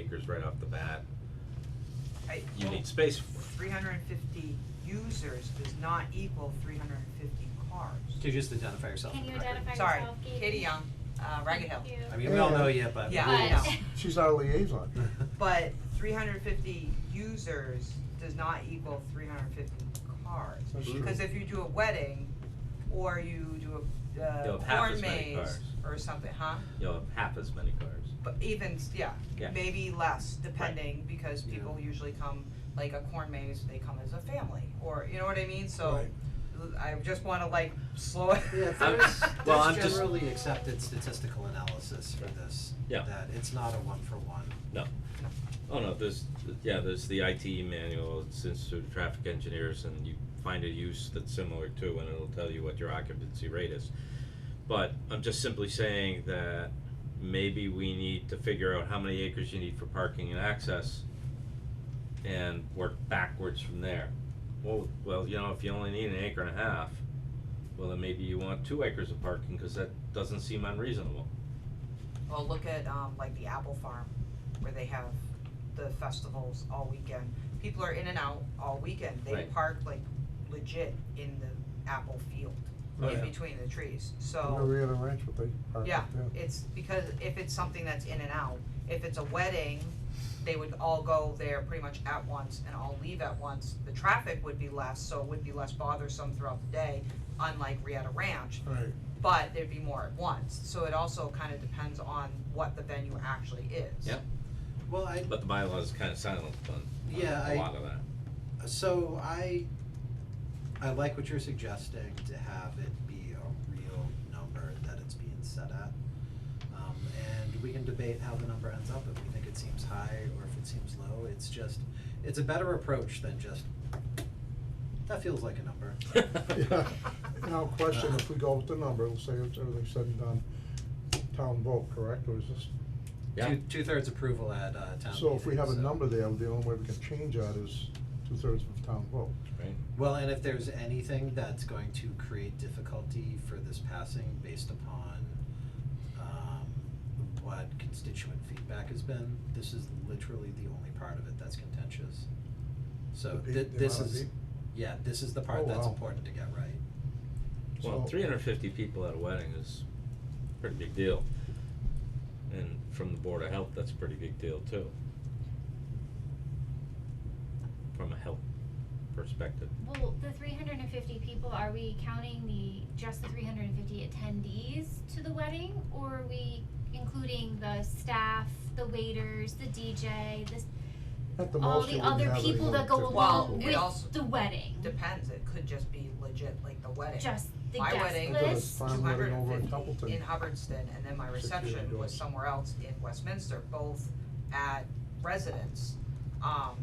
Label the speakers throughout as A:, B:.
A: acres right off the bat,
B: I-
A: you need space for it.
B: Three hundred and fifty users does not equal three hundred and fifty cars.
C: To just identify yourself
D: Can
C: for the
D: you
C: record.
D: identify
B: Sorry,
D: yourself, Katie?
B: Katie Young, uh, Ragged Hill.
D: Thank you.
C: I mean, we all know you, but.
B: Yeah,
D: I
C: rules.
D: know.
E: She's not a liaison.
B: But three hundred and fifty users does not equal three hundred and fifty cars.
E: That's true.
B: Cause if you do a wedding, or you do a, uh,
A: You'll have half
B: corn
A: as many
B: maze,
A: cars.
B: or something, huh?
A: You'll have half as many cars.
B: But even, s- yeah,
A: Yeah.
B: maybe less depending, because
C: Yeah.
B: people usually come, like a corn maze, they come as a family, or, you know what I mean, so.
E: Right.
B: I just wanna like slow it.
C: Yeah,
A: I'm
C: there's,
A: just- well, I'm
C: there's
A: just-
C: generally accepted statistical analysis for this,
A: Yeah.
C: that it's not a one for one.
A: No. Oh, no, there's, yeah, there's the IT manual, it's Institute of Traffic Engineers, and you find a use that's similar to, and it'll tell you what your occupancy rate is. But I'm just simply saying that maybe we need to figure out how many acres you need for parking and access and work backwards from there. Well, well, you know, if you only need an acre and a half, well, then maybe you want two acres of parking, cause that doesn't seem unreasonable.
B: Well, look at um like the Apple Farm, where they have the festivals all weekend. People are in and out all weekend. They
A: Right.
B: park like legit in the apple field,
A: Oh,
B: in
A: yeah.
B: between the trees,
E: I know
B: so,
E: we had a ranch, but they parked
B: yeah.
E: it down.
B: It's because if it's something that's in and out, if it's a wedding, they would all go there pretty much at once and all leave at once. The traffic would be less, so it would be less bothersome throughout the day, unlike Rieta Ranch,
E: Right,
B: but there'd be more at once. So it also kind of depends on what the venue actually is.
A: Yep.
C: Well, I,
A: But the bylaw is kinda silent on
C: Yeah,
A: on
C: I-
A: a lot of that.
C: so I, I like what you're suggesting to have it be a real number that it's being set at. Um, and we can debate how the number ends up, if we think it seems high or if it seems low, it's just, it's a better approach than just, that feels like a number.
E: yeah. Now, question, if we go with the number, let's say it's everything said and done, town vote, correct, or is this?
A: Yeah,
C: Two, two-thirds approval at, uh, town
E: So if we
C: meeting,
E: have a
C: so-
E: number there, the only way we can change that is two-thirds of town vote.
A: right.
C: Well, and if there's anything that's going to create difficulty for this passing based upon um what constituent feedback has been, this is literally the only part of it that's contentious. So
E: The pe-
C: thi-
E: the
C: this
E: amount of
C: is,
E: peop-
C: yeah, this is the
E: Oh,
C: part that's
E: wow.
C: important to get right.
A: Well,
E: So-
A: three hundred and fifty people at a wedding is a pretty big deal. And from the Board of Health, that's a pretty big deal too. From a health perspective.
D: Well, the three hundred and fifty people, are we counting the, just the three hundred and fifty attendees to the wedding? Or are we including the staff, the waiters, the DJ, the, s-
E: At the
D: all
E: most,
D: the
E: you wouldn't
D: other
E: have
D: people
E: anyone
D: that go
E: to-
B: Well,
D: along
B: it also-
D: with the wedding?
B: Depends. It could just be legit like the wedding.
D: Just the
B: My
D: guest
B: wedding-
E: Because
D: list?
E: it's farm wedding over
B: 250
E: in Templeton.
B: in Hubbardston, and then my
E: Security
B: reception was
E: doors.
B: somewhere else in Westminster, both at residence. Um,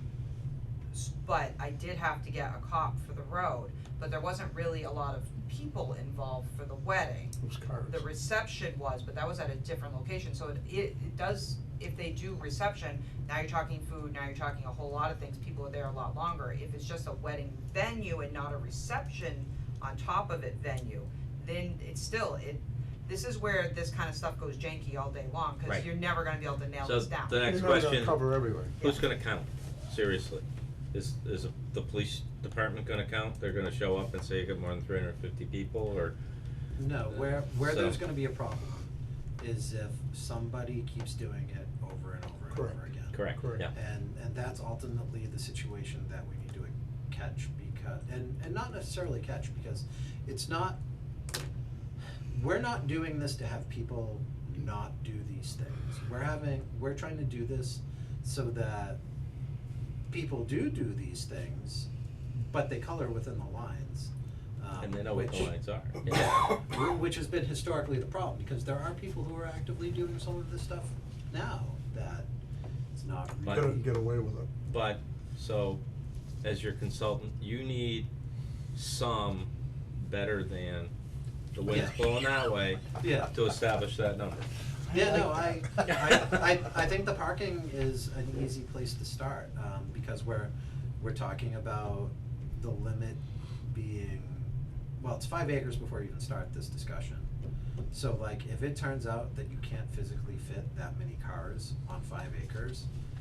B: s- but I did have to get a cop for the road, but there wasn't really a lot of people involved for the wedding.
E: Those cars.
B: the reception was, but that was at a different location, so it, it, it does, if they do reception, now you're talking food, now you're talking a whole lot of things, people are there a lot longer, if it's just a wedding venue and not a reception on top of it venue, then it's still, it, this is where this kind of stuff goes janky all day long, cause
A: Right.
B: you're never gonna be able to nail
A: So
B: this down.
A: the next
E: You're not gonna
A: question,
E: cover everything.
A: who's gonna count? Seriously. Is, is the police department gonna count? They're gonna show up and say you got more than three hundred and fifty people or?
C: No, where where
A: So-
C: there's gonna be a problem is if somebody keeps doing it over and over and over
E: Correct.
C: again.
A: Correct,
E: Correct.
A: yeah.
C: And and that's ultimately the situation that we need to catch because and and not necessarily catch because it's not we're not doing this to have people not do these things. We're having we're trying to do this so that people do do these things, but they color within the lines. Um,
A: And they know what the
C: which-
A: lines are.
C: yeah, wh- which has been historically the problem, because there are people who are actively doing some of this stuff now that it's not
A: But-
C: really.
E: Couldn't get away with it.
A: But, so, as your consultant, you need some better than the wind's
C: Yeah.
A: blowing that way
C: Yeah,
A: to establish that number.
C: yeah, no, I,
E: like
C: I, I, I think the parking is an easy place to start, um, because we're, we're talking about the limit being, well, it's five acres before you even start this discussion. So like, if it turns out that you can't physically fit that many cars on five acres,